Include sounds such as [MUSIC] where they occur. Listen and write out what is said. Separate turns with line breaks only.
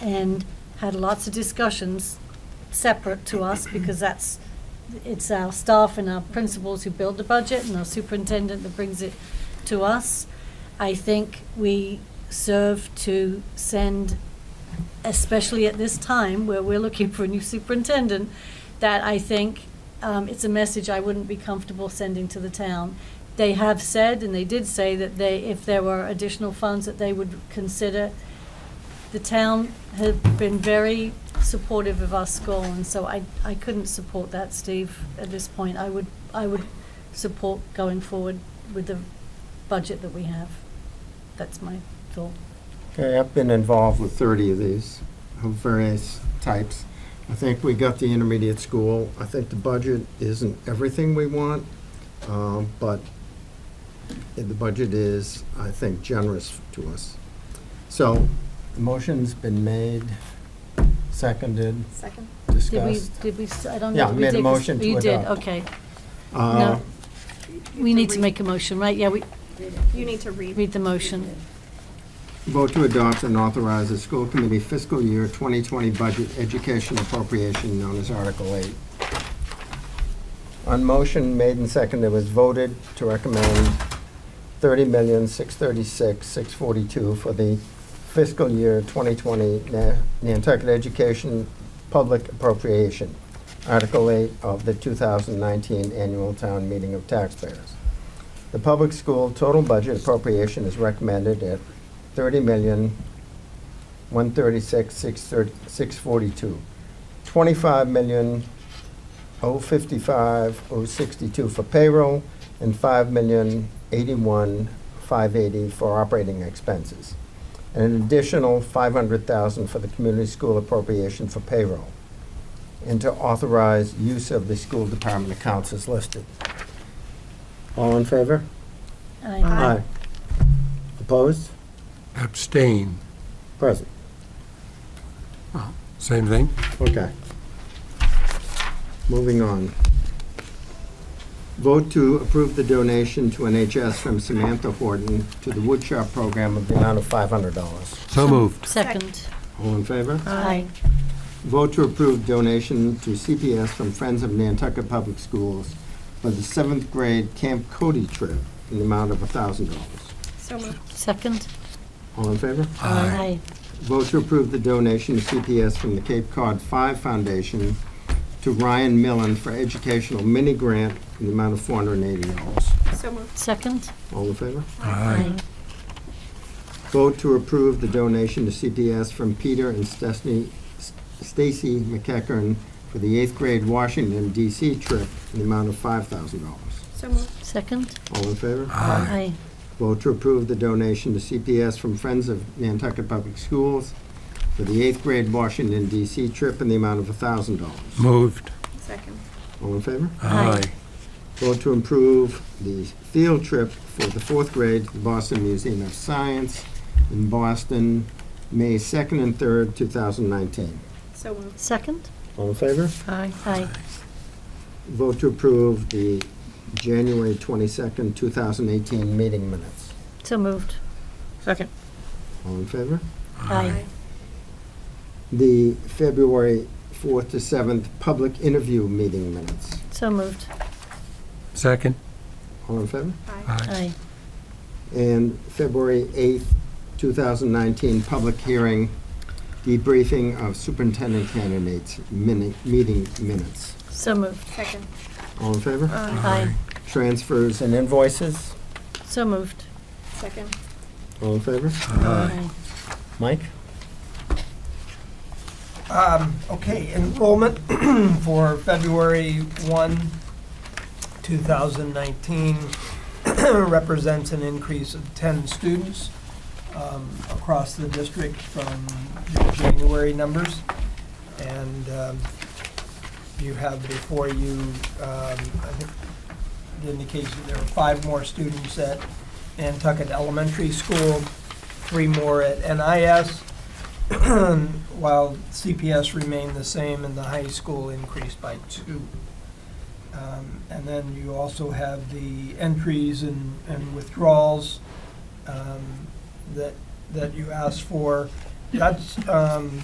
and had lots of discussions separate to us because that's, it's our staff and our principals who build the budget and our superintendent that brings it to us. I think we serve to send, especially at this time where we're looking for a new superintendent, that I think um, it's a message I wouldn't be comfortable sending to the town. They have said, and they did say, that they, if there were additional funds that they would consider, the town had been very supportive of our school, and so I, I couldn't support that, Steve, at this point. I would, I would support going forward with the budget that we have. That's my thought.
Okay, I've been involved with 30 of these, of various types. I think we got the intermediate school. I think the budget isn't everything we want, um, but the budget is, I think, generous to us. So, the motion's been made, seconded,
Second?
Did we,
discussed.
did we, s- I don't
Yeah,
know.
I
if we
made a
did 'cause-
motion to
You did,
adopt.
okay.
Uh,
No, we need to make a motion, right? Yeah, we,
You need to read.
read the motion.
Vote to adopt and authorize the school committee fiscal year 2020 budget education appropriation known as Article 8. On motion made and seconded, it was voted to recommend 30636642 for the fiscal year 2020 Na- Nantucket Education Public Appropriation, Article 8 of the 2019 Annual Town Meeting of Taxpayers. The public school total budget appropriation is recommended at thirty million, one thirty-six, six thirty, six forty-two. Twenty-five million, oh fifty-five, oh sixty-two for payroll, and five million, eighty-one, five eighty for operating expenses. And an additional five hundred thousand for the community school appropriation for payroll. And to authorize use of the school department accounts as listed. All in favor?
I-
Aye.
Opposed?
Abstain,
Present.
same thing?
Okay. Moving on. Vote to approve the donation to NHS from Samantha Horton to the woodshop program of the amount of $500.
So moved.
Second.
All in favor?
Aye.
Vote to approve donation to CPS from Friends of Nantucket Public Schools for the seventh grade Camp Cody trip in the amount of $1,000.
So moved.
Second.
All in favor?
Aye.
Vote to approve the donation to CPS from the Cape Cod Five Foundation to Ryan Millen for educational mini grant in the amount of four hundred and eighty dollars.
So moved.
Second.
All in favor?
Aye.
Vote to approve the donation to CPS from Peter and Stesney, Stacy McEckern for the eighth grade Washington DC trip in the amount of five thousand dollars.
So moved.
Second.
All in favor?
Aye.
Vote to approve the donation to CPS from Friends of Nantucket Public Schools for the eighth grade Washington DC trip in the amount of thousand dollars.
Moved.
Second.
All in favor?
Aye.
Vote to improve the field trip for the fourth grade to the Boston Museum of Science in Boston, May 2nd and 3rd, 2019.
So moved.
Second.
All in favor?
Aye. Aye.
Vote to approve the January 22nd, 2018 meeting minutes.
So moved.
Second.
All in favor?
Aye.
The February 4th to 7th public interview meeting minutes.
So moved.
Second?
All in favor?
Aye.
Aye.
and February 8th, 2019, public hearing, debriefing of superintendent candidates, mini- meeting minutes.
So moved.
Second.
All in favor?
Aye.
Transfers and invoices,
So moved.
Second.
all in favor?
Aye.
Mike?
Um, Okay, enrollment [CLEARS THROAT] for February 1, 2019 [CLEARS THROAT] represents an increase of 10 students um, across the district from the January numbers. And um, you have before you, um, I think, the indication there are five more students at Nantucket Elementary School, three more at NIS, [CLEARS THROAT] while CPS remained the same and the high school increased by two. Um, And then you also have the entries and and withdrawals um, that, that you asked for. That's um,